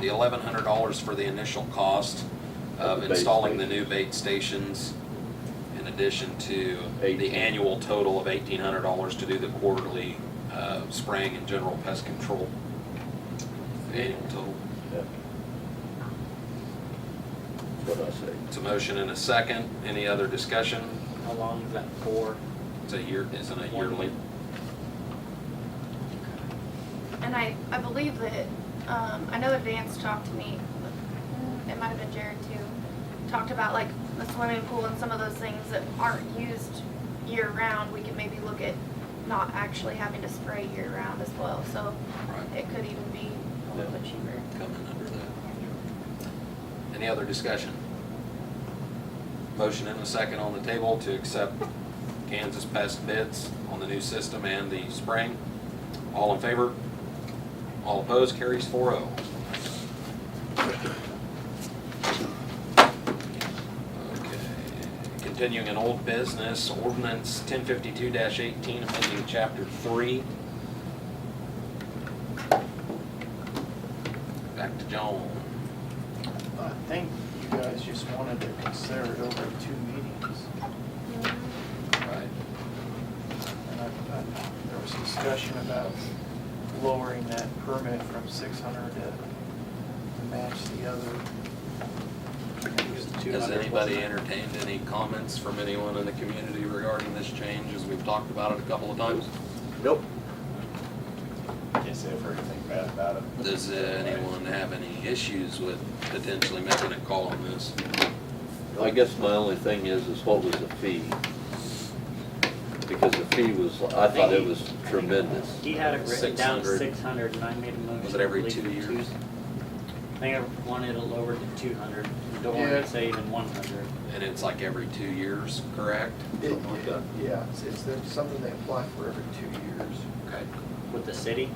the eleven hundred dollars for the initial cost Of of the bait installing the station. new bait stations in addition to the Eighteen. annual total of eighteen hundred dollars to do the quarterly, uh, spraying and general pest control. The Annual total. Yep. That's what I say. It's a motion and a second. Any other discussion? How long is that for? It's a year, isn't it yearly? And I, I believe that, um, I know that Vance talked to me, it might have been Jared too, talked about like the swimming pool and some of those things that aren't used year round, we can maybe look at not actually having to spray year round as well, so Right. it could even be a little bit cheaper. coming under that. Any other discussion? Motion and a second on the table to accept Kansas Pest bids on the new system and the spring. All in favor? All opposed, carries oh. 4-0. Okay. Continuing in old business, ordinance ten fifty-two eighteen, amending chapter three. Back to Joan. I think you guys just wanted to consider it over two meetings. Right, And I, I, there was discussion about lowering that permit from six hundred to to match the other. I think it was 200, has wasn't anybody it? entertained any comments from anyone in the community regarding this change, as we've talked about it a couple of times? Nope. Can't say I've heard anything bad about it. Does anyone have any issues with potentially making a call on this? I guess my only thing is, is what was the fee? Because the fee was, I thought it was tremendous. He had it written down 600. six hundred and I made a motion. Was it every I believe, two to years? I think I wanted it lowered to two hundred. Don't want Yeah. to say even one hundred. And it's like every two years, correct? It- Something like that. Yeah, it's, it's the- something they apply for every two years. Okay. With the city?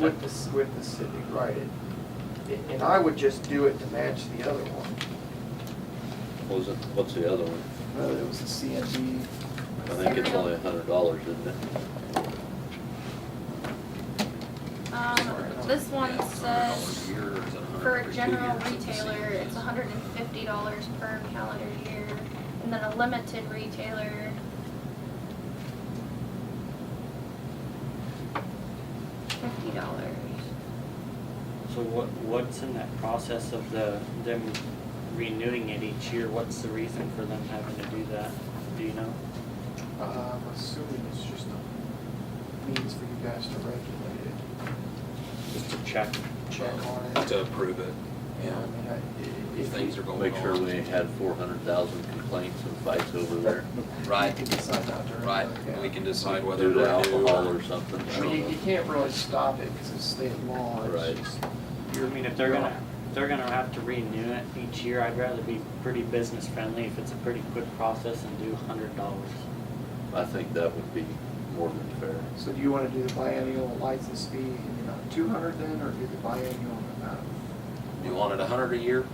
With the, c- with the city, right. It- it- And I would just do it to match the other one. What was it, what's the other one? Whether it was a CMB, I think it's only a hundred dollars, isn't it? Um, this one Yeah, it's $100 says, a year, or is it $100 uh, for every a two general years? It's the same retailer, as- it's hundred and fifty dollars per calendar year, and then a limited retailer, fifty dollars. So what, what's in that process of the, them renewing it each year? What's the reason for them having to do that? Do you know? Uh, I'm assuming it's just a means for you guys to regulate it, Just to check. check on it. To approve it, Yeah, I mean, I- i- if if things are going Make sure we on. ain't had four hundred thousand complaints and fights over there. Right. You can decide not to. Right, we can decide whether Due to to alcohol do or or. something. I I mean, you, don't you know. can't really stop it because it's state law. it's Right. just- I mean, if they're gonna, if they're gonna have to renew it each year, I'd rather be pretty business friendly if it's a pretty quick process and do hundred dollars. I think that would be more than fair. So do you want to do the biennial license fee in the amount of two hundred then, or do the biennial in the amount You want it a hundred a year?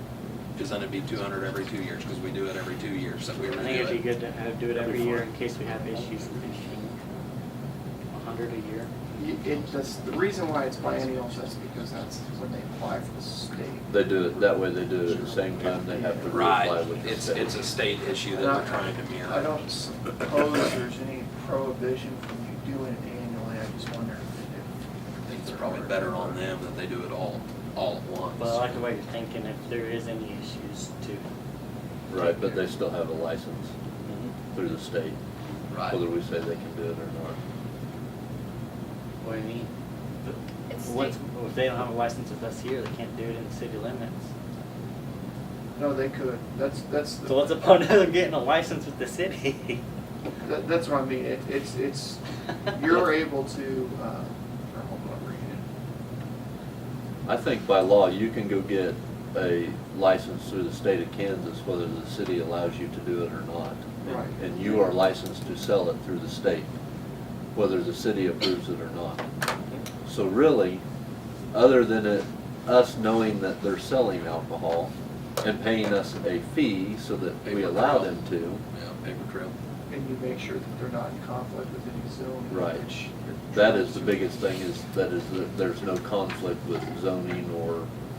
Cause then it'd be two hundred every two years, cause we do it every two years, so we I renew think it'd be it. good to have, do it every year in case we have issues with issuing a hundred a year. of? Y- It just, the reason why it's biennial is just because that's when they apply for the state. They do it, that way they do it at the same time, they have to reapply Right, with the it's, state. it's a state issue that they're trying to mirror. I don't suppose there's any prohibition from you doing it annually, I just wonder I if. think it's probably better on them that they do it all, all at once. But I like the way you're thinking, if there is any issues too. Right, but they still have a license Mhm. through the state, whether Right, we say they can do it or not. What do you mean? It's What's, state- if they don't have a license with us here, they can't do it in the city limits. No, they could, that's, that's, So what's the the- point of them getting a license with the city? that- that's what I mean, It- it's, it's, you're able to, uh, or hold on, read it. I think by law, you can go get a license through the state of Kansas, whether the city allows you to do it or not. Right. And you are licensed to sell it through the state, whether the city approves it or not. So really, other than it, us knowing that they're selling alcohol and paying us a fee so that we Paper allow trail. them to, yeah, paper trail. And you make sure that they're not in conflict with any zone. Right. which- that is the biggest thing is, that is, that there's no conflict with zoning or